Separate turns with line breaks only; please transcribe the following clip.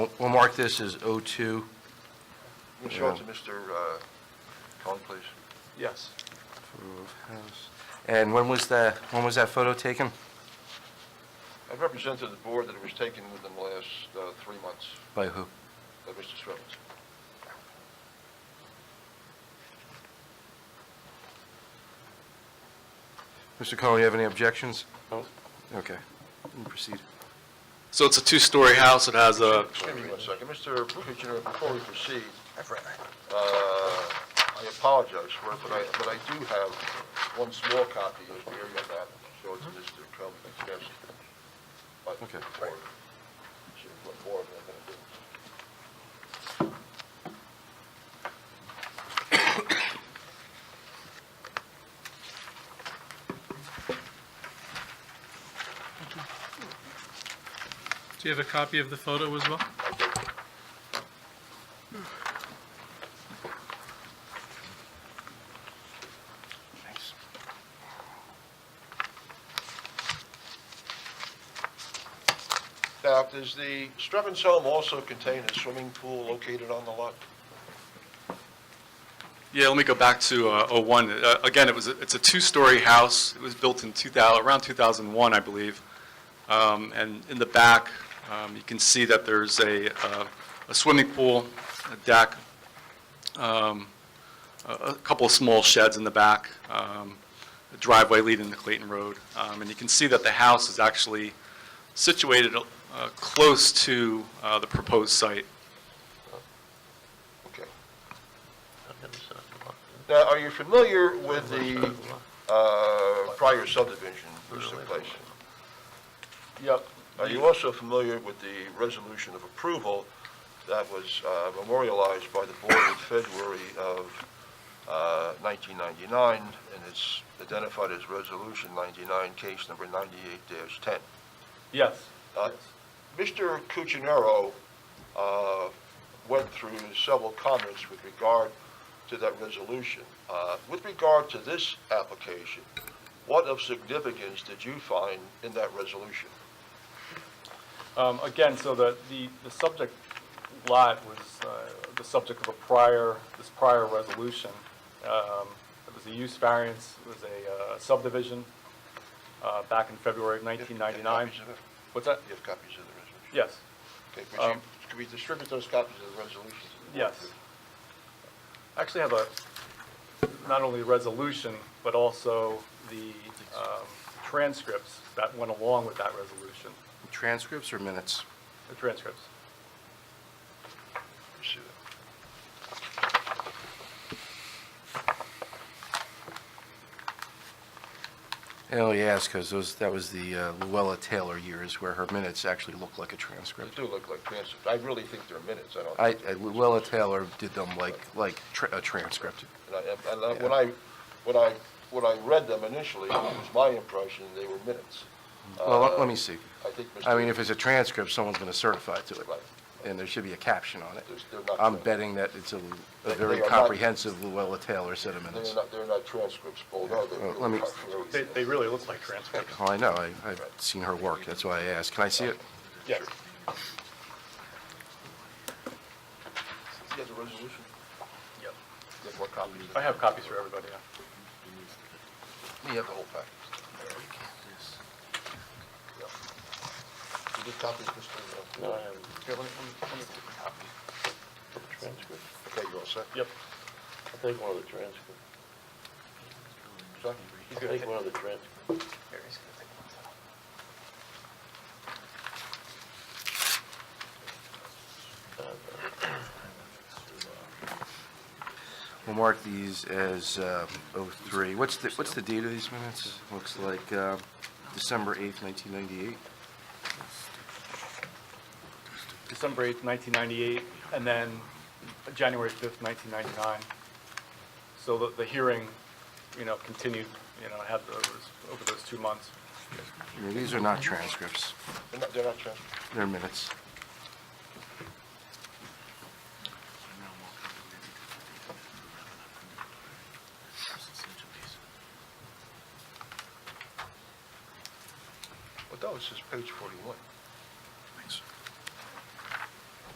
We'll- We'll mark this as O2.
Ms. Schultz and Mr. uh, Cohen, please.
Yes.
And when was that, when was that photo taken?
I've represented to the board that it was taken within the last uh, three months Uh,
By who?
by Mr. Swivels.
Mr. Cohen, you have any objections?
No.
Okay. You can Proceed.
So it's a two-story house, it has a,
Excuse me one second. Mr. Bukic, you know, before we proceed, uh, I apologize for it, but I, but I do have one small copy of the area map, so it's Mr. Cohen, yes. But
Okay.
more- so what more am I gonna do?
Do you have a copy of the photo as well?
Thanks.
Now, does the Strebbins home also contain a swimming pool located on the lot?
yeah, let me go back to uh, 01. Uh, Again, it was, a- it's a two-story house, it was built in 2000, around 2001, I believe. Um, And in the back, um, you can see that there's a uh, a swimming pool, a deck, um, a a couple of small sheds in the back, um, a driveway leading to Clayton Road. Um, And you can see that the house is actually situated uh, close to uh, the proposed site.
Okay. Now, are you familiar with the uh, prior subdivision which took place? Yep. Are you also familiar with the resolution of approval that was uh, memorialized by the board in February of uh, 1999, and it's identified as Resolution 99, case number 98-10?
Yes.
Uh, Mr. Cuccinero uh, went through several comments with regard to that resolution. Uh, With regard to this application, what of significance did you find in that resolution?
Um, Again, so the, the the subject lot was uh, the subject of a prior, this prior resolution. Um, It was a use variance, it was a uh, subdivision uh, back in February of
You have- you have
1999.
copies of it?
What's that?
You have copies of the resolution?
Yes,
Okay, would you-
Um,
Could we distribute those copies of the resolution? to the board,
yes.
please?
I Actually have a, not only the resolution, but also the um, transcripts that went along with that resolution,
Transcripts or minutes?
the transcripts.
Let me see that.
Oh, yes, because those, that was the uh, Luella Taylor years where her minutes actually looked like a
They
transcript.
do look like transcripts. I really think they're minutes, I don't.
I,
think
I-
they're-
Luella Taylor did them like, like tra- a transcript.
And I- And I- when I, when I, when I read them initially, it was my impression they were minutes.
Well, let- let me see.
I think Mr.
I mean, if it's a transcript, someone's going to certify to it.
Right.
And there should be a caption on it.
There's- they're not
I'm
trans-
betting that it's a a
They-
very
they are not-
comprehensive Luella Taylor set of
They're
minutes.
not, they're not transcripts, although they're.
Well, let me-
They, they really look like transcripts.
Well, I know, I- I've seen her work, that's why I asked. Can I see it?
Yes.
You have the resolution?
Yep.
You have more copies?
I have copies for everybody, yeah.
You have the whole package. Yeah. You did copies, Mr.? No, I haven't. Here, let me, let me get a copy. Transcript. Okay, you all set?
Yep.
I'll take one of the transcripts. I'll take one of the transcripts.
We'll mark these as um, 03. What's the, what's the date of these minutes? Looks like um, December 8th, 1998.
December 8th, 1998, and then January 5th, 1999. So the, the hearing, you know, continued, you know, had those, over those two months.
I mean, These are not transcripts,
They're not, they're not transcripts.
they're minutes.
Well, that was just page forty-one.